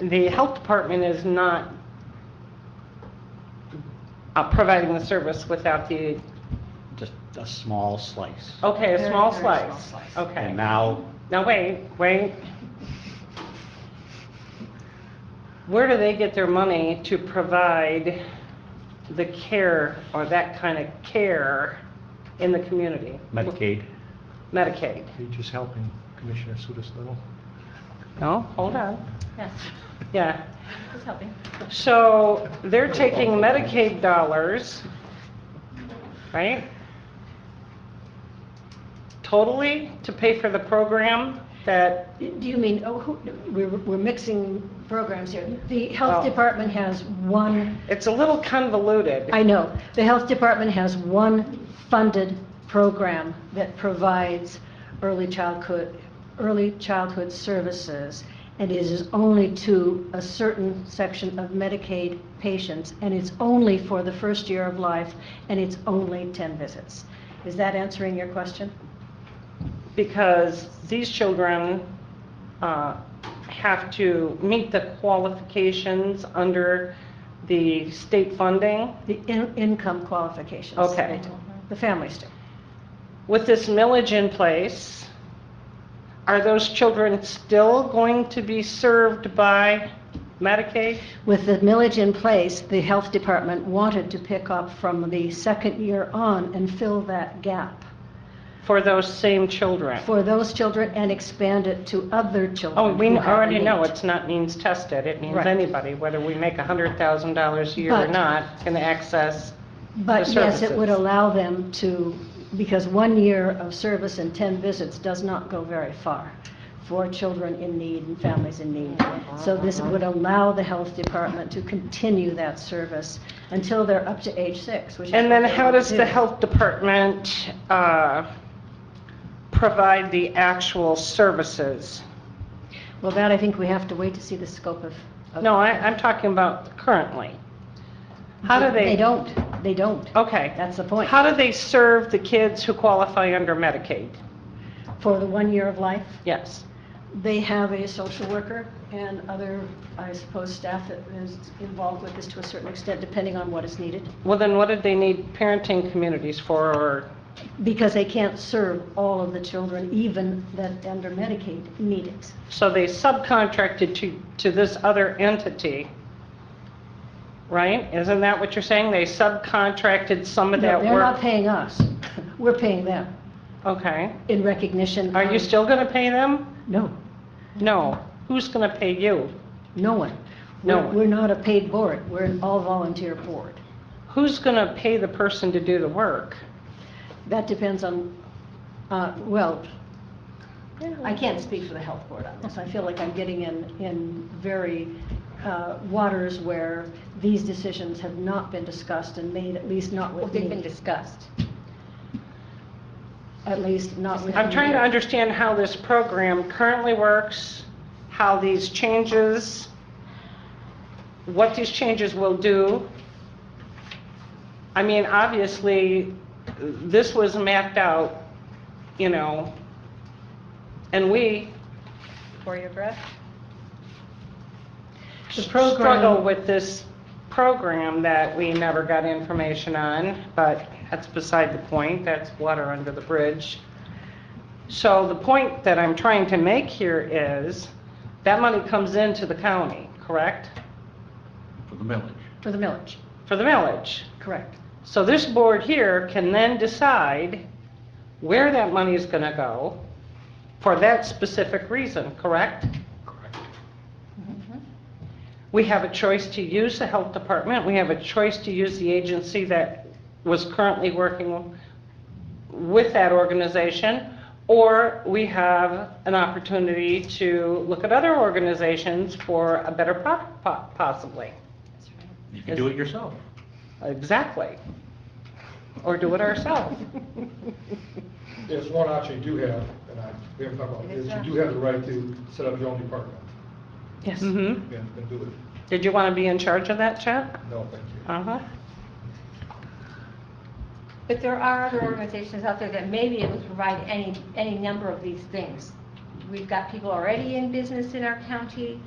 the health department is not uh, providing the service without the, just a small slice. okay, a Very, small very small slice. slice. Okay. And now, Now, wait, wait. Where do they get their money to provide the care or that kind of care in the community? Medicaid, Medicaid. Are you just helping Commissioner Sudas Little? No, hold on. Yes, Yeah. just helping. So they're taking Medicaid dollars, right? Totally to pay for the program that, Do you mean, oh, who, we're, we're mixing programs here. The Oh. health department has one, it's a little convoluted. I know, the health department has one funded program that provides early childhood, early childhood services, and it is only to a certain section of Medicaid patients, and it's only for the first year of life, and it's only 10 visits. Is that answering your question? because these children uh, have to meet the qualifications under the state funding. The in- income qualifications. Okay. They do. The families do. With this millage in place, are those children still going to be served by Medicaid? With the millage in place, the health department wanted to pick up from the second year on and fill that gap For those same children? for those children and expand it to other children. Oh, we who have already the know need. it's not means tested. It means Right. anybody, whether we make $100,000 a year or But- not, can access But the yes, it would services. allow them to, because one year of service and 10 visits does not go very far for children in need and families in need. So this Uh-huh. would allow the health department to continue that service until they're up to age six, which is. And what then they how want to does the do. health department uh, provide the actual services? Well, that I think we have to wait to see the scope of. of- No, I- I'm talking about currently. How do they? They don't, they don't. Okay. That's the point. How do they serve the kids who qualify under Medicaid? For the one year of life, Yes. they have a social worker and other, I suppose, staff that is involved with this to a certain extent, depending on what is needed. Well, then what did they need parenting communities for? or- Because they can't serve all of the children, even that under Medicaid need it. So they subcontracted to, to this other entity, right? Isn't that what you're saying? They subcontracted some of that No, work? They're not paying us. We're paying them Okay. in recognition. Are you of- still going to pay them? No, No. Who's going to pay you? no one. No We're- one. We're not a paid board. We're an all-volunteer board. Who's going to pay the person to do the work? That depends on, uh, well, I can't speak for the health board on this. I feel like I'm getting in, in very uh, waters where these decisions have not been discussed and made, at least not Well, with they've been me. discussed. At least not with me. I'm trying to understand how this program currently works, how these changes, what these changes will do. I mean, obviously, this was mapped out, you know, and we For your breath? The struggle program- with this program that we never got information on, but that's beside the point, that's water under the bridge. So the point that I'm trying to make here is, that money comes into the county, correct? for the millage. For the millage, For the millage. correct. So this board here can then decide where that money is gonna go for that specific reason, correct? Mm-hmm. Correct. We have a choice to use the health department, we have a choice to use the agency that was currently working with that organization, or we have an opportunity to look at other organizations for a better product po- possibly. That's right. You can do it yourself. Exactly. Or do it ourselves. There's one option you do have, and I, we haven't talked about it, is you do have the right to set up your own department Mm-hmm. Yes. hmm and, and do it. Did you want to be in charge of that, Chet? No, thank you. Uh-huh. But there are other organizations out there that may be able to provide any, any number of these things. We've got people already in business in our county.